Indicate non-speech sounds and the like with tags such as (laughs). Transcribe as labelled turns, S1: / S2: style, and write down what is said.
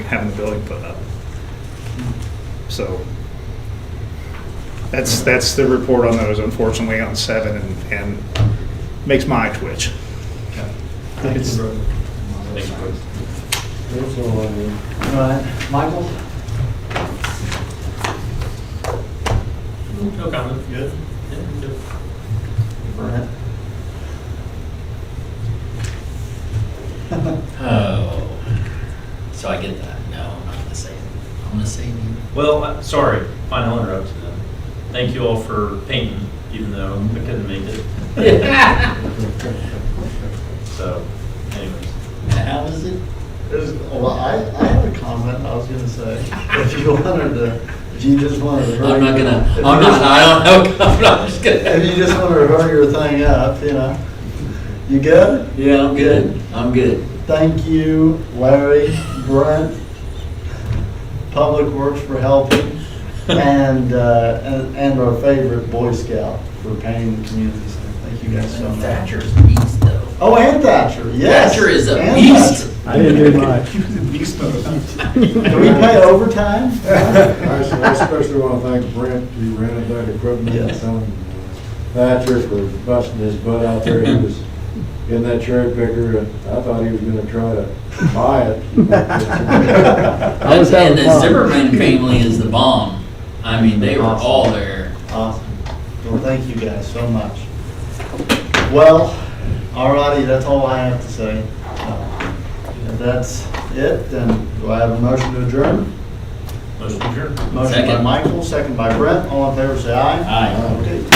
S1: having the building put up. So that's, that's the report on those, unfortunately, on seven, and, and makes my eye twitch.
S2: Thank you, brother. All right, Michael?
S3: No comment.
S2: Good.
S3: Yeah, good.
S2: Brent?
S4: Oh, so I get that. No, I'm not gonna say it. I'm gonna say you.
S3: Well, I- sorry, fine, I'll interrupt you then. Thank you all for painting, even though I couldn't make
S4: (laughs)
S3: it. So, anyways.
S4: How is it?
S5: There's, well, I, I had a comment I was gonna say, if you wanted to, if you just wanted to. hurry-
S4: I'm not gonna,
S5: if
S4: I'm
S5: you
S4: not,
S5: just-
S4: I don't know, (laughs) I'm not, just
S5: If you just
S4: gonna.
S5: wanted to hurry your thing up, you know, you good?
S4: Yeah, I'm good. I'm good.
S5: Thank you, Larry, Brent, Public Works for helping, and, uh, and, and our favorite Boy Scout for painting the community center. Thank you guys so much.
S4: Thatcher's beast though.
S5: Oh, and Thatcher, yes.
S4: Thatcher is a
S5: and
S4: beast.
S5: Thatcher.
S6: I didn't do much. (laughs)
S1: Beast mode.
S5: Do we pay overtime? (laughs)
S6: I especially want to thank Brent, he rented that equipment, and
S5: Yes.
S6: some uh, Thatcher for busting his butt out there, he was in that cherry picker, and I thought he was gonna try to buy
S4: (laughs)
S6: it.
S4: And
S6: was
S4: and
S6: having
S4: the
S6: fun.
S4: Zimmerman family is the bomb. I mean, they were all there.
S5: Awesome. Well, thank you guys so much. Well, alrighty, that's all I have to say. Uh, If that's it, then do I have a motion to adjourn?
S3: Motion adjourned.
S5: Motion by
S4: Second.
S5: Michael, second by Brett. All in favor, say aye.
S4: Aye.
S5: Okay.